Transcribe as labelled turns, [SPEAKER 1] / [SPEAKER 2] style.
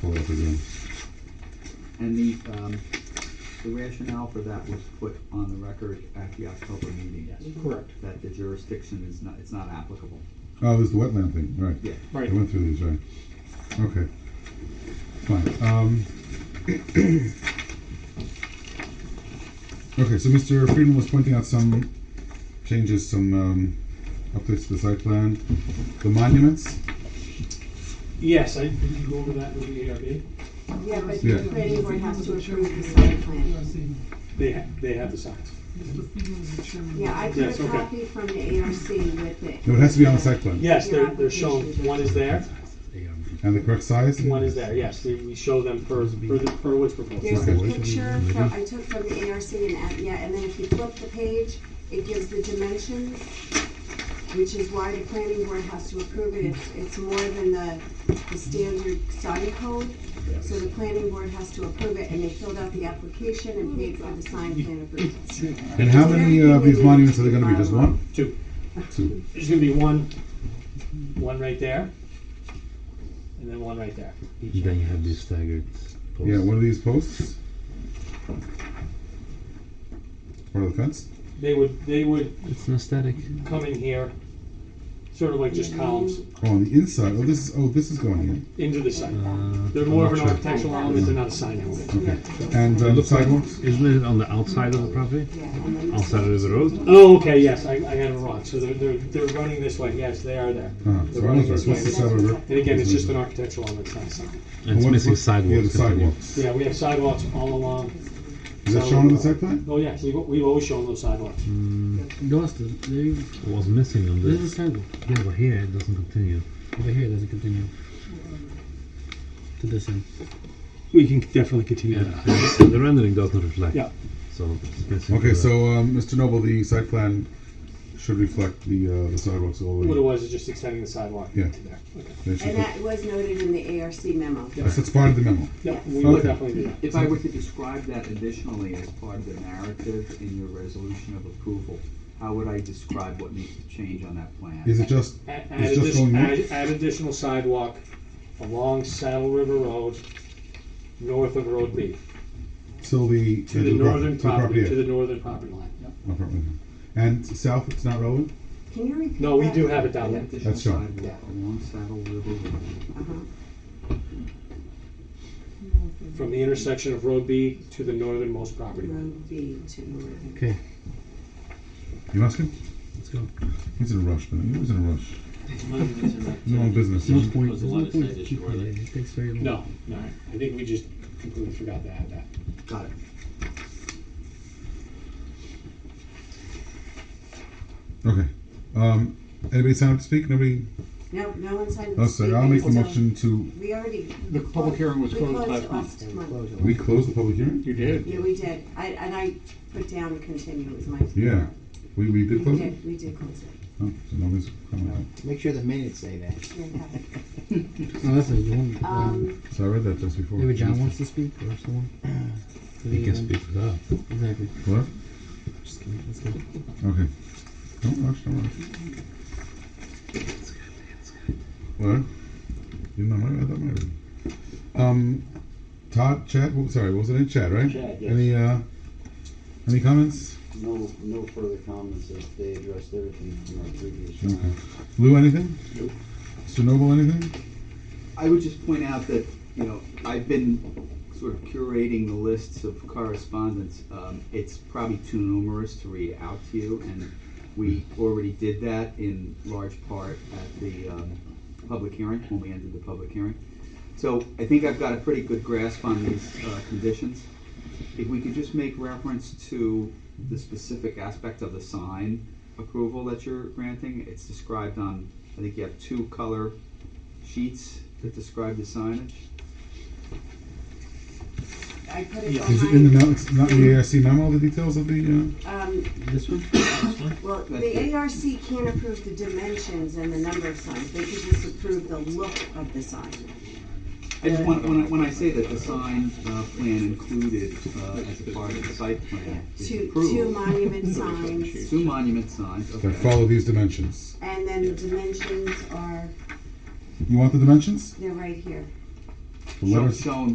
[SPEAKER 1] pull it up again.
[SPEAKER 2] And the, um, the rationale for that was put on the record at the October meeting.
[SPEAKER 3] Correct.
[SPEAKER 2] That the jurisdiction is not, it's not applicable.
[SPEAKER 1] Oh, there's the wetland thing, right.
[SPEAKER 2] Yeah.
[SPEAKER 3] Right.
[SPEAKER 1] I went through these, right. Okay. Fine. Um, okay, so Mr. Friedman was pointing out some changes, some um, updates to the site plan. The monuments?
[SPEAKER 3] Yes, I, did you go over that with the ARB?
[SPEAKER 4] Yeah, but
[SPEAKER 1] Yeah.
[SPEAKER 4] the planning board has to approve the site plan.
[SPEAKER 3] They, ha- they have the signs.
[SPEAKER 4] Yeah, I
[SPEAKER 3] Yes,
[SPEAKER 4] took a
[SPEAKER 3] okay.
[SPEAKER 4] copy from the ARC with it.
[SPEAKER 1] No, it has to be on the site plan.
[SPEAKER 3] Yes,
[SPEAKER 4] Your
[SPEAKER 3] they're, they're shown,
[SPEAKER 4] application.
[SPEAKER 3] one is there,
[SPEAKER 1] And the correct size?
[SPEAKER 3] one is there, yes, we, we show them per, per the, per what's proposed.
[SPEAKER 4] There's a
[SPEAKER 1] Okay.
[SPEAKER 4] picture from, I took from the ARC and, at- yeah, and then if you flip the page, it gives the dimensions, which is why the planning board has to approve it. It's, it's more than the, the standard sign code. So the planning board has to approve it and they filled out the application and paid for the sign plan approval.
[SPEAKER 1] And how many of these monuments are there going to be? Just one?
[SPEAKER 3] Two.
[SPEAKER 1] Two.
[SPEAKER 3] There's gonna be one, one right there, and then one right there.
[SPEAKER 5] Then you have these staggered posts.
[SPEAKER 1] Yeah, one of these posts? Part of the fence?
[SPEAKER 3] They would, they would
[SPEAKER 5] It's not static.
[SPEAKER 3] come in here, sort of like just columns,
[SPEAKER 1] Oh, on the inside. Oh, this is oh, this is going in.
[SPEAKER 3] into the site.
[SPEAKER 5] Uh,
[SPEAKER 3] They're more of an
[SPEAKER 5] Sure.
[SPEAKER 3] architectural element, they're not a sign element.
[SPEAKER 1] Okay. And um, sidewalks?
[SPEAKER 5] Isn't it on the outside of the property?
[SPEAKER 4] Yeah, and then this
[SPEAKER 5] Outside of the road?
[SPEAKER 3] Oh, okay, yes, I, I got it wrong, so they're, they're, they're running this way, yes, they are there.
[SPEAKER 1] Uh,
[SPEAKER 3] They're
[SPEAKER 1] so I
[SPEAKER 3] running
[SPEAKER 1] was right.
[SPEAKER 3] this
[SPEAKER 1] What's the
[SPEAKER 3] way.
[SPEAKER 1] side of the road?
[SPEAKER 3] And again, it's just an architectural element, it's not a sign.
[SPEAKER 5] And it's
[SPEAKER 1] What-
[SPEAKER 5] missing
[SPEAKER 1] what- Yeah, the
[SPEAKER 5] sidewalks. continue.
[SPEAKER 1] sidewalks.
[SPEAKER 3] Yeah, we have sidewalks all along.
[SPEAKER 1] Is that shown on the site plan?
[SPEAKER 3] Oh, yes, we've, we've always shown those sidewalks.
[SPEAKER 6] Lost it. There,
[SPEAKER 5] It was missing on
[SPEAKER 6] there's a
[SPEAKER 5] this.
[SPEAKER 6] sidewalk.
[SPEAKER 5] Yeah, but here it doesn't continue.
[SPEAKER 6] Over here, it doesn't continue. To this end.
[SPEAKER 3] We can definitely continue
[SPEAKER 5] Yeah. the rendering does not reflect.
[SPEAKER 3] Yeah.
[SPEAKER 5] So it's missing.
[SPEAKER 1] Okay,
[SPEAKER 5] the-
[SPEAKER 1] so um, Mr. Noble, the site plan should reflect the uh, the sidewalks all the
[SPEAKER 3] What it
[SPEAKER 1] way.
[SPEAKER 3] was is just extending the sidewalk
[SPEAKER 1] Yeah.
[SPEAKER 3] to there. Okay.
[SPEAKER 1] They
[SPEAKER 4] And
[SPEAKER 1] should look-
[SPEAKER 4] that was noted in the ARC memo.
[SPEAKER 1] That's that's part of the memo.
[SPEAKER 3] Yeah, we will
[SPEAKER 1] Okay.
[SPEAKER 3] definitely do that.
[SPEAKER 2] If I were to describe that additionally as part of the narrative in your resolution of approval, how would I describe what needs to change on that plan?
[SPEAKER 1] Is it just
[SPEAKER 3] Add, add,
[SPEAKER 1] it's just
[SPEAKER 3] addition-
[SPEAKER 1] going
[SPEAKER 3] add,
[SPEAKER 1] north?
[SPEAKER 3] add additional sidewalk along Saddle River Road, north of Road B,
[SPEAKER 1] till the
[SPEAKER 3] to the
[SPEAKER 1] edge of prop-
[SPEAKER 3] northern
[SPEAKER 1] to the property?
[SPEAKER 3] property, to
[SPEAKER 1] edge?
[SPEAKER 3] the northern property line. Yep.
[SPEAKER 1] Oh, property. And south, it's not relevant.
[SPEAKER 4] Can you repeat
[SPEAKER 3] No, we
[SPEAKER 4] that?
[SPEAKER 3] do have it down
[SPEAKER 2] Yeah,
[SPEAKER 3] there.
[SPEAKER 2] Additional
[SPEAKER 1] That's right.
[SPEAKER 2] sidewalk along Saddle River Road.
[SPEAKER 4] Uh-huh.
[SPEAKER 3] From the intersection of Road B to the northernmost property line.
[SPEAKER 4] Road B to northern.
[SPEAKER 5] Okay,
[SPEAKER 1] You asking?
[SPEAKER 5] let's go.
[SPEAKER 1] He's in a rush, man. He was in a rush. He's in the wrong business.
[SPEAKER 6] There's no point.
[SPEAKER 7] was
[SPEAKER 6] There's
[SPEAKER 7] a
[SPEAKER 6] no
[SPEAKER 7] lot of
[SPEAKER 6] point
[SPEAKER 7] side
[SPEAKER 6] to
[SPEAKER 7] issue,
[SPEAKER 6] keep
[SPEAKER 7] were
[SPEAKER 6] it.
[SPEAKER 7] there?
[SPEAKER 6] It takes very long.
[SPEAKER 3] No, no, I think we just completely forgot to add that.
[SPEAKER 2] Got it.
[SPEAKER 1] Okay. Um, anybody sign up to speak? Nobody?
[SPEAKER 4] No, no one signed.
[SPEAKER 1] Oh, sorry. I'll make the
[SPEAKER 4] So,
[SPEAKER 1] motion to.
[SPEAKER 4] We already.
[SPEAKER 8] The public hearing was
[SPEAKER 4] we
[SPEAKER 8] closed
[SPEAKER 4] closed
[SPEAKER 8] last
[SPEAKER 4] it
[SPEAKER 8] month.
[SPEAKER 4] last month.
[SPEAKER 1] We close the public hearing.
[SPEAKER 8] You did?
[SPEAKER 4] Yeah, we did. I, and I put down continue was my.
[SPEAKER 1] Yeah, we, we did
[SPEAKER 4] We
[SPEAKER 1] close it.
[SPEAKER 4] did, we did close it.
[SPEAKER 1] Oh, so nobody's coming
[SPEAKER 9] Make sure the minutes say that.
[SPEAKER 4] Yeah, have it.
[SPEAKER 6] No,
[SPEAKER 8] Oh,
[SPEAKER 6] that's it. You want-
[SPEAKER 4] Um,
[SPEAKER 1] out. So I read that just before.
[SPEAKER 6] Maybe John wants to speak or someone.
[SPEAKER 5] You can speak without.
[SPEAKER 6] Exactly.
[SPEAKER 1] What?
[SPEAKER 6] Just kidding. Let's go.
[SPEAKER 1] Okay. Don't rush, don't rush. What? You know, my, I thought my. Um, Todd, Chad, what- sorry, what was it in Chad, right?
[SPEAKER 7] Chad, yes.
[SPEAKER 1] Any, uh, any comments?
[SPEAKER 7] No, no further comments, as they addressed everything from our previous
[SPEAKER 1] Okay.
[SPEAKER 7] round.
[SPEAKER 1] Lou, anything?
[SPEAKER 7] Nope.
[SPEAKER 1] Mr. Noble, anything?
[SPEAKER 2] I would just point out that, you know, I've been sort of curating the lists of correspondence. Um, it's probably too numerous to read out to you, and we already did that in large part at the, um, public hearing, when we ended the public hearing. So I think I've got a pretty good grasp on these, uh, conditions. If we could just make reference to the specific aspect of the sign approval that you're granting, it's described on, I think you have two color sheets that describe the signage?
[SPEAKER 4] I put it
[SPEAKER 1] Is it in the
[SPEAKER 4] behind,
[SPEAKER 1] memo, it's not in the ARC memo, the details of the, uh,
[SPEAKER 4] um,
[SPEAKER 6] This one?
[SPEAKER 4] well, the ARC can't approve the dimensions and the number of signs. They can just approve the look of the sign.
[SPEAKER 2] I just want, when I, when I say that the sign, uh, plan included, uh, as a part of the site plan is
[SPEAKER 4] Two, two
[SPEAKER 2] approved.
[SPEAKER 4] monument signs,
[SPEAKER 2] Two monument signs,
[SPEAKER 1] uh, that
[SPEAKER 2] okay.
[SPEAKER 1] follow these dimensions?
[SPEAKER 4] and then the dimensions are,
[SPEAKER 1] You want the dimensions?
[SPEAKER 4] they're right here.
[SPEAKER 1] The letter
[SPEAKER 2] shown